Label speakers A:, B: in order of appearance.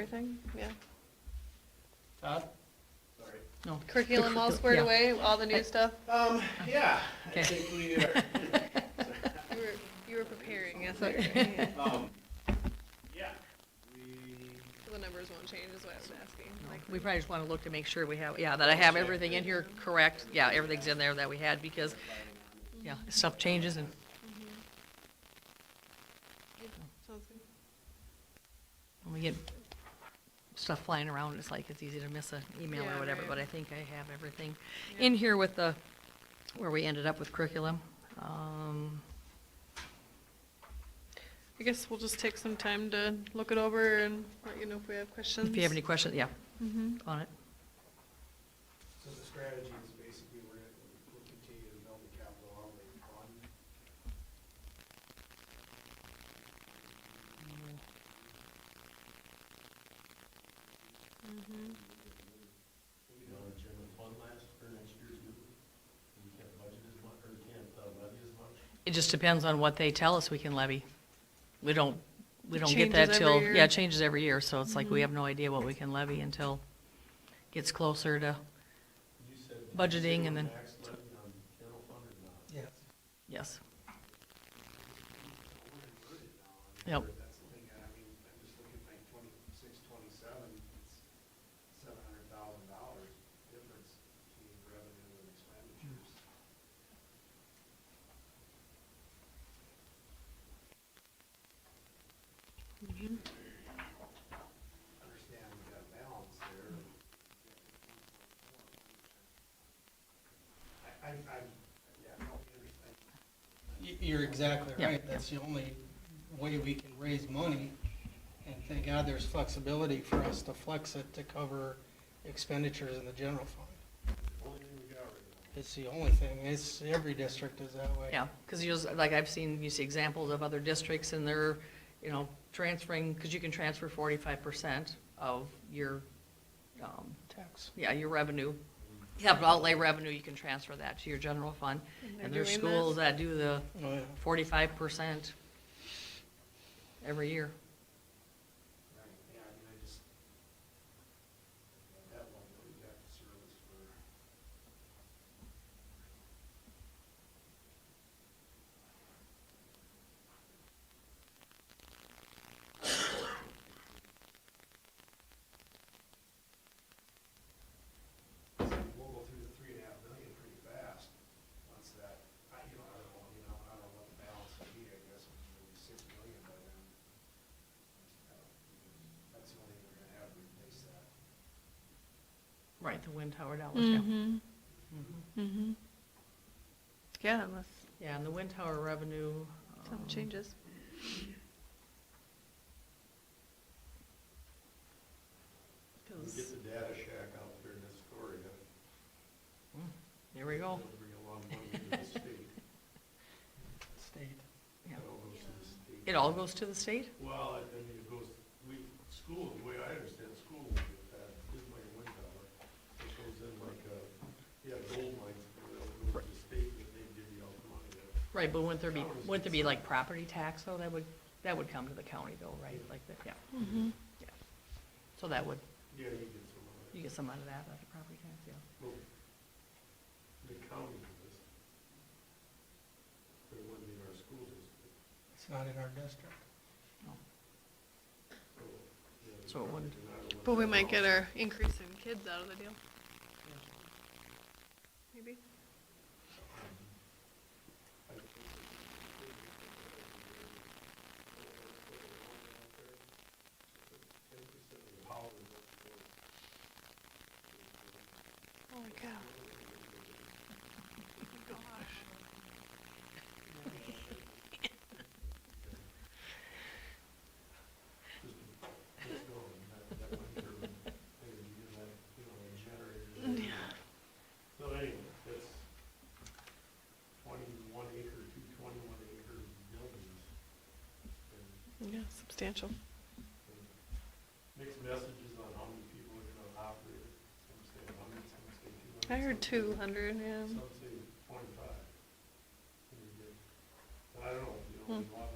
A: everything, yeah.
B: Todd?
C: Sorry.
D: No.
A: Curriculum all
D: curricul-
A: squared
D: yeah.
A: away, all the new stuff.
C: Um, yeah,
D: Okay.
C: I think we
E: uh,
C: are.
A: You were, you were preparing, yes, I
D: Sorry.
A: agree, yeah.
C: Um, yeah, we,
A: So The numbers won't change is what I was asking.
D: No,
A: like-
D: We probably just want to look to make sure we have, yeah, that I have everything in here correct. Yeah, everything's in there that we had because, yeah, stuff changes and,
A: Mhm. Yeah, Sounds good.
D: when we get stuff flying around, it's like, it's easy to miss an email
A: Yeah,
D: or whatever,
A: right.
D: but I think I have everything
A: Yeah.
D: in here with the, where we ended up with curriculum. Um,
A: I guess we'll just take some time to look it over and let you know if we have questions.
D: If you have any questions, yeah,
A: Mhm.
D: on it.
E: So the strategy is basically we're, gonna- we'll continue to build the capital outlay fund.
A: Mhm.
B: You know, the general fund last, for next year's, we can't budget as much, or we can't uh, levy as much.
D: It just depends on what they tell us we can levy. We don't, we
A: It
D: don't get
A: changes
D: that
A: every
D: till,
A: year.
D: yeah, it changes every year, so it's like we
A: Mhm.
D: have no idea what we can levy until gets closer to,
B: You said.
D: Budgeting and then-
B: Max levy on general fund or not?
E: Yes.
D: yes.
E: We're inverted now. I mean,
D: Yep.
E: That's the thing, I mean, I'm just looking at like twenty-six, twenty-seven, it's seven hundred thousand dollars difference between revenue and expenditures.
A: Mhm.
E: Understand we got a balance there. I, I, I, yeah, no, I, I
F: Y- You're exactly
D: Yeah,
F: right.
D: yeah.
F: That's the only way we can raise money. And thank God there's flexibility for us to flex it to cover expenditures in the general fund.
E: only thing we got right now.
F: It's the only thing. It's, every district is that way.
D: Yeah, because you, just- like, I've seen, you see examples of other districts and they're, you know, transferring, because you can transfer forty-five percent of your, um,
F: Tax.
D: yeah, your revenue. You have outlay revenue, you can transfer that to your general fund.
A: And they're
D: And there's
A: doing that?
D: schools that do the
F: Oh, yeah.
D: forty-five percent every year.
E: Right, yeah, I mean, I just, at that level, we got the service for. So We'll go through the three and a half million pretty fast, once that, I, you know, I don't, know, you know, I don't know what the balance would be, I guess, maybe six million by then. That's the only thing we're gonna have to replace that.
D: Right, the wind tower dollars, yeah.
A: Mhm.
F: Mhm.
D: Mm-hmm.
A: Mhm. Yeah, unless
D: Yeah, and the wind tower revenue.
A: something
D: um,
A: changes.
B: We
D: 'cause-
B: Get the data shack out there in Astoria.
D: Mm, There we go.
B: That'll Bring a lot of money to the state.
F: State.
D: Yeah.
B: That all goes to the state.
D: It all goes to the state?
B: Well, I I mean, it goes, we, school, the way I understand, school, uh, is like a wind tower. It goes in like a, yeah, gold mines, it'll go to the state, and they divvy out the money. there.
D: Right, but wouldn't there be, wouldn't there be like property tax though? That would, that would come to the county though, right? Like that, yeah.
A: Mhm.
D: So that would,
B: Yeah, you get some of
D: you
B: it.
D: get some out of that, out of property tax, yeah.
B: Well, The county does. But it wouldn't be in our school district,
F: It's not in our district.
B: so. yeah, the
D: So it wouldn't-
B: property and I don't
A: But we
B: know.
A: might get our increase in kids out of the deal. Maybe. Holy cow. Gosh.
B: But anyway, that's twenty-one acre, two twenty-one acre buildings. And
A: Yeah, substantial.
B: Mixed messages on how many people are gonna operate it. Some say a hundred, some say two hundred.
A: I heard two hundred, yeah.
B: Some say twenty-five. And you get- And I don't know, you know,
A: Hmm.
B: a lot of